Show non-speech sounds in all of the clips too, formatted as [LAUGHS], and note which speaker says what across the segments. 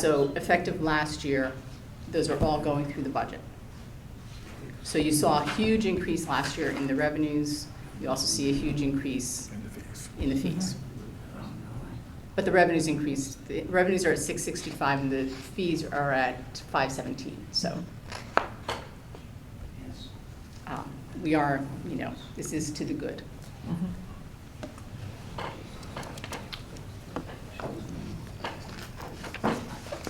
Speaker 1: So effective last year, those are all going through the budget. So you saw a huge increase last year in the revenues. You also see a huge increase in the fees. But the revenues increased, the revenues are at 665 and the fees are at 517. So um, we are, you know, this is to the good.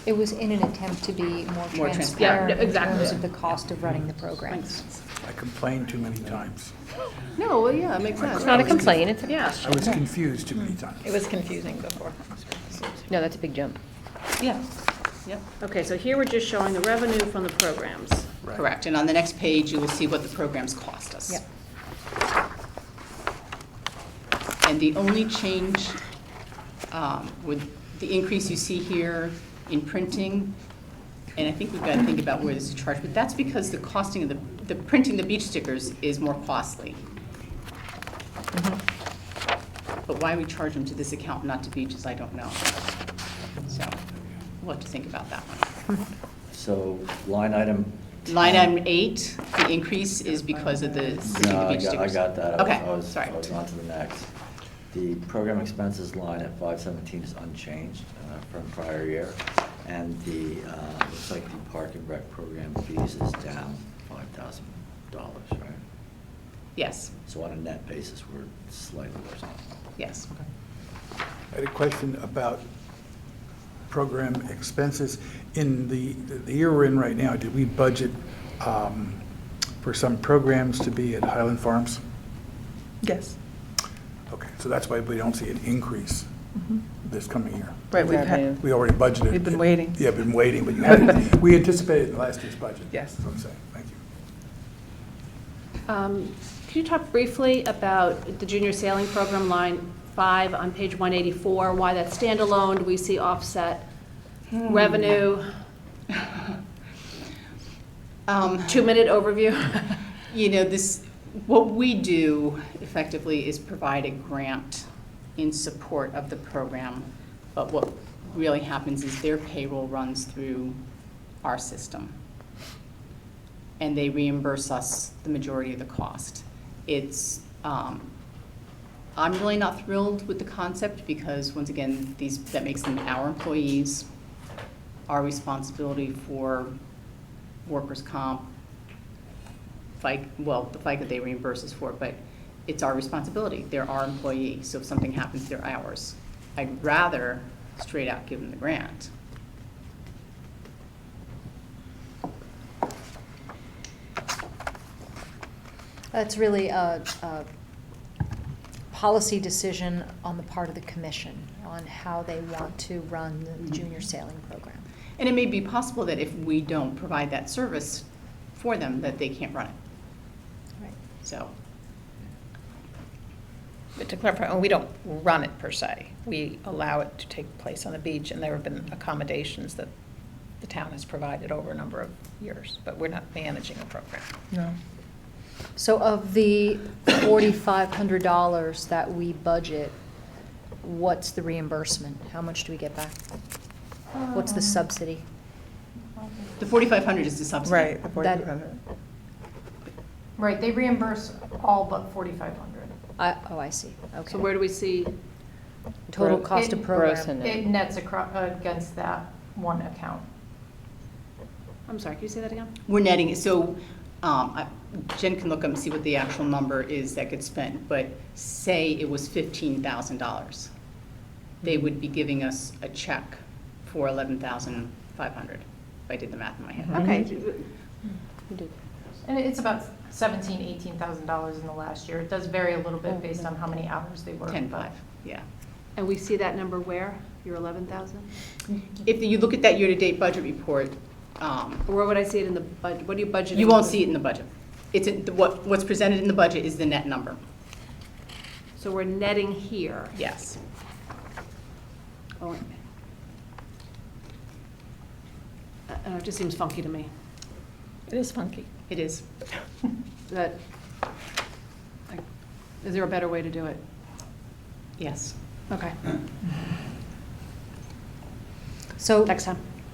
Speaker 2: It was in an attempt to be more
Speaker 1: More trans-
Speaker 2: transparent
Speaker 3: yeah,
Speaker 2: in
Speaker 3: exactly.
Speaker 2: terms of the cost of running the program.
Speaker 1: Thanks.
Speaker 4: I complained too many times.
Speaker 1: No, well, yeah, it makes sense.
Speaker 3: It's not a complaint, it's a
Speaker 1: Yeah.
Speaker 3: question.
Speaker 4: I was confused too many times.
Speaker 5: It was confusing before.
Speaker 3: No, that's a big jump.
Speaker 5: Yeah.
Speaker 1: Yep.
Speaker 5: Okay, so here we're just showing the revenue from the programs.
Speaker 4: Right.
Speaker 1: Correct. And on the next page, you will see what the programs cost us.
Speaker 2: Yep.
Speaker 1: And the only change um, with the increase you see here in printing, and I think we've got to think about where this is charged, but that's because the costing of the, the printing the beach stickers is more costly. But why we charge them to this account, not to beaches, I don't know. So we'll have to think about that one.
Speaker 6: So line item.
Speaker 1: Line
Speaker 6: Um,
Speaker 1: item eight, the increase is because of the
Speaker 6: No,
Speaker 1: City
Speaker 6: I
Speaker 1: Beach
Speaker 6: got- I
Speaker 1: stickers.
Speaker 6: got that. I was- I
Speaker 1: Okay,
Speaker 6: was-
Speaker 1: sorry.
Speaker 6: I was on to the next. The program expenses line at five seventeen is unchanged uh, from prior year. And the, uh, looks like the park and rec program fees is down five thousand dollars, right?
Speaker 1: Yes,
Speaker 6: So on a net basis, we're slightly worse off.
Speaker 1: yes.
Speaker 4: I had a question about program expenses. In the, the year we're in right now, did we budget um, for some programs to be at Highland Farms?
Speaker 7: Yes,
Speaker 4: Okay, so that's why we don't see an increase this coming year.
Speaker 7: right, we've had,
Speaker 4: We already budgeted.
Speaker 7: Mm-hmm. We've been waiting.
Speaker 4: Yeah, been waiting, but you
Speaker 7: [LAUGHS]
Speaker 4: had, we anticipated in last year's budget.
Speaker 7: Yes.
Speaker 4: That's what I'm saying, thank you.
Speaker 3: Um, Could you talk briefly about the junior sailing program, line five on page 184, why that's standalone? Do we see offset
Speaker 1: Hmm.
Speaker 3: revenue?
Speaker 1: [LAUGHS] Um,
Speaker 3: Two-minute overview? [LAUGHS]
Speaker 1: [LAUGHS] You know, this, what we do effectively is provide a grant in support of the program, but what really happens is their payroll runs through our system. And they reimburse us the majority of the cost. It's, um, I'm really not thrilled with the concept because, once again, these, that makes them our employees. Our responsibility for workers' comp, FICA, well, the FICA they reimburse us for, but it's our responsibility. They're our employee, so if something happens, they're ours. I'd rather straight out give them the grant.
Speaker 2: That's really a, a policy decision on the part of the commission on how they want to run the junior sailing program.
Speaker 1: And it may be possible that if we don't provide that service for them, that they can't run it,
Speaker 2: Right.
Speaker 1: so.
Speaker 5: But to clarify, oh, we don't run it per se. We allow it to take place on the beach, and there have been accommodations that the town has provided over a number of years, but we're not managing a program.
Speaker 7: no,
Speaker 2: So of the forty-five hundred dollars that we budget, what's the reimbursement? How much do we get back? What's
Speaker 3: Um,
Speaker 2: the subsidy?
Speaker 1: The 4,500 is the subsidy.
Speaker 7: right, the 4,500.
Speaker 8: Right, they reimburse all but forty-five hundred.
Speaker 2: I, oh, I see, okay.
Speaker 3: So where do we see?
Speaker 2: Total cost of
Speaker 8: It-
Speaker 2: program.
Speaker 8: It nets across, against that one account.
Speaker 3: I'm sorry, can you say that again?
Speaker 1: We're netting, so um, I- Jen can look up and see what the actual number is that gets spent, but say it was $15,000. They would be giving us a check for 11,500, if I did the math in my head.
Speaker 3: Okay.
Speaker 8: And it's about seventeen, eighteen thousand dollars in the last year. It does vary a little
Speaker 2: Oh,
Speaker 8: bit based on how many hours they work.
Speaker 1: 10.5, yeah.
Speaker 3: And we see that number where? Your 11,000?
Speaker 1: If you look at that year-to-date budget report, um,
Speaker 3: Or where would I see it in the budget? What do you budget?
Speaker 1: you won't see it in the budget. It's, in- the- what what's presented in the budget is the net number,
Speaker 3: So we're netting here.
Speaker 1: yes.
Speaker 3: Oh, wait a minute. I- I know, Uh, oh, It just seems funky to me,
Speaker 5: It is funky.
Speaker 1: It is.
Speaker 3: that, like, is there a better way to do it?
Speaker 1: Yes.
Speaker 3: Okay,
Speaker 2: So
Speaker 3: next time.